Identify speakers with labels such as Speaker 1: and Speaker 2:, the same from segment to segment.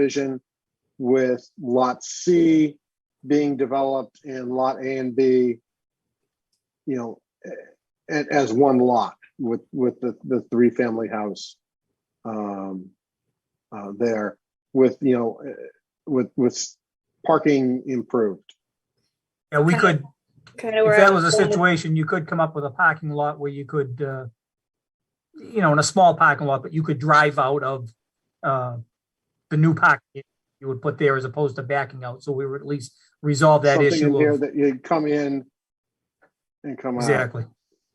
Speaker 1: vision with lot C being developed and lot A and B, you know, eh, as one lot with, with the, the three family house um, uh, there with, you know, eh, with, with parking improved.
Speaker 2: Yeah, we could,
Speaker 3: Kind of
Speaker 2: if
Speaker 3: where.
Speaker 2: that
Speaker 3: I
Speaker 2: was a
Speaker 3: going.
Speaker 2: situation, you could come up with a parking lot where you could, uh, you know, in a small parking lot, but you could drive out of, uh, the new parking you would put there as opposed to backing out. So we would at least resolve that
Speaker 1: Something in
Speaker 2: issue
Speaker 1: here
Speaker 2: of,
Speaker 1: That you come in and come out.
Speaker 2: exactly.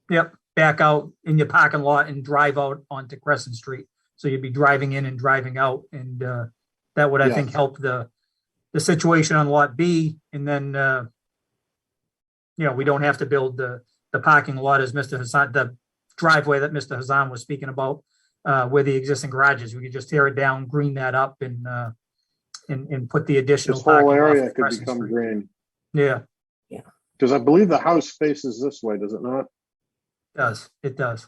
Speaker 2: Yep, back out in your parking lot and drive out onto Crescent Street. So you'd be driving in and driving out and, uh, that would, I
Speaker 1: Yeah.
Speaker 2: think, help the, the situation on Lot B and then, uh, you know, we don't have to build the, the parking lot as Mr. Hassan, the driveway that Mr. Hassan was speaking about, uh, where the existing garage is. We could just tear it down, green that up and, uh, and, and put the additional.
Speaker 1: This whole
Speaker 2: parking lot for
Speaker 1: area could
Speaker 2: Crescent
Speaker 1: become
Speaker 2: Street.
Speaker 1: green,
Speaker 2: Yeah, it
Speaker 1: because I believe the house faces this way, does it not?
Speaker 2: does. It does.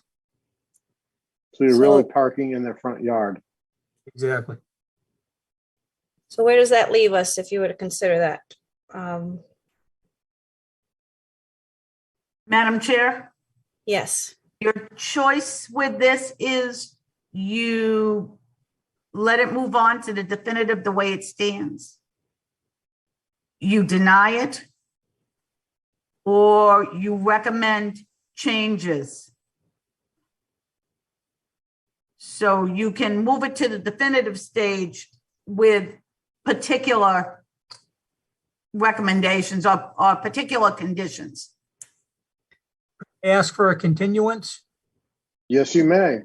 Speaker 1: So you're really
Speaker 3: So-
Speaker 1: parking in their front yard.
Speaker 2: Exactly.
Speaker 3: So where does that leave us if you were to consider that? Um,
Speaker 4: Madam Chair,
Speaker 3: yes,
Speaker 4: your choice with this is you let it move on to the definitive the way it stands. You deny it, or you recommend changes. So you can move it to the definitive stage with particular recommendations or, or particular conditions.
Speaker 2: Ask for a continuance.
Speaker 1: Yes, you may.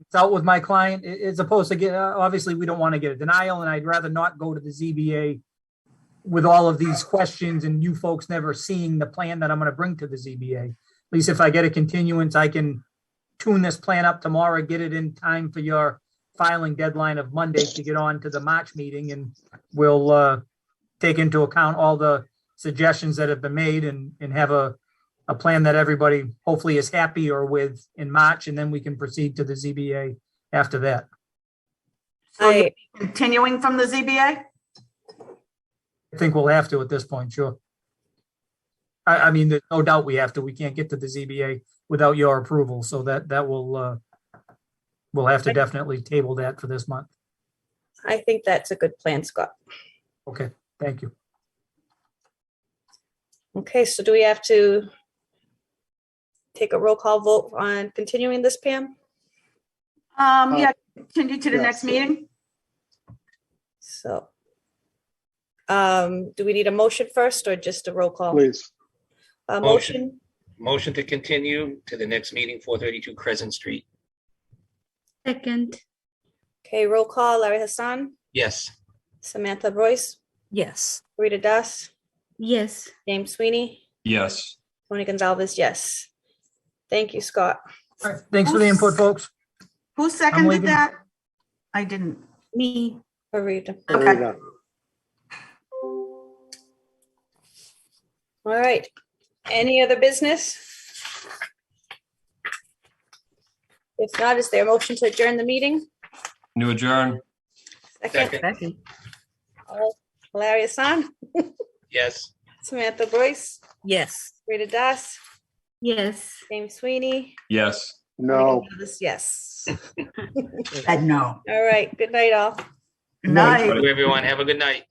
Speaker 2: it's out with my client, i- as opposed to get, uh, obviously, we don't want to get a denial, and I'd rather not go to the ZBA with all of these questions and you folks never seeing the plan that I'm going to bring to the ZBA. At least if I get a continuance, I can tune this plan up tomorrow, get it in time for your filing deadline of Monday to get on to the March meeting, and we'll uh, take into account all the suggestions that have been made and, and have a a plan that everybody hopefully is happy or with in March, and then we can proceed to the ZBA after that.
Speaker 4: So you're
Speaker 3: I,
Speaker 4: continuing from the ZBA?
Speaker 2: I think we'll have to at this point, sure. I, I mean, there's no doubt we have to. We can't get to the ZBA without your approval, so that, that will, uh, we'll have to definitely table that for this month.
Speaker 3: I think that's a good plan, Scott.
Speaker 2: Okay, thank you.
Speaker 3: Okay, so do we have to take a roll call vote on continuing this, Pam?
Speaker 4: Um,
Speaker 1: Uh,
Speaker 4: yeah, continue to the
Speaker 1: yeah,
Speaker 4: next
Speaker 1: so-
Speaker 4: meeting?
Speaker 3: So. Um, do we need a motion first or just a roll call?
Speaker 1: Please.
Speaker 3: A
Speaker 5: Motion.
Speaker 3: motion?
Speaker 5: Motion to continue to the next meeting, four thirty-two Crescent Street.
Speaker 6: Second,
Speaker 3: Okay, roll call, Larry Hassan,
Speaker 5: Yes,
Speaker 3: Samantha Boyce,
Speaker 7: Yes.
Speaker 3: Rita Das,
Speaker 6: yes.
Speaker 3: James Sweeney,
Speaker 8: Yes.
Speaker 3: Tony Gonzalez, yes. Thank you, Scott.
Speaker 2: All right, thanks for the input, folks.
Speaker 4: Who
Speaker 2: leaving.
Speaker 4: seconded that? I didn't.
Speaker 6: Me.
Speaker 3: for reading.
Speaker 4: Okay.
Speaker 1: There you go.
Speaker 3: All right. Any other business? If not, is there a motion to adjourn the meeting?
Speaker 8: New adjourn?
Speaker 3: Second,
Speaker 5: second,
Speaker 7: Second.
Speaker 3: Larry Hassan,
Speaker 5: yes.
Speaker 3: Samantha Boyce,
Speaker 7: Yes.
Speaker 3: Rita Das,
Speaker 6: Yes.
Speaker 3: James Sweeney.
Speaker 8: Yes.
Speaker 1: No.
Speaker 3: Yes.
Speaker 4: Said no.
Speaker 3: All right. Good night, all.
Speaker 4: Nice.
Speaker 5: Everyone, have a good night.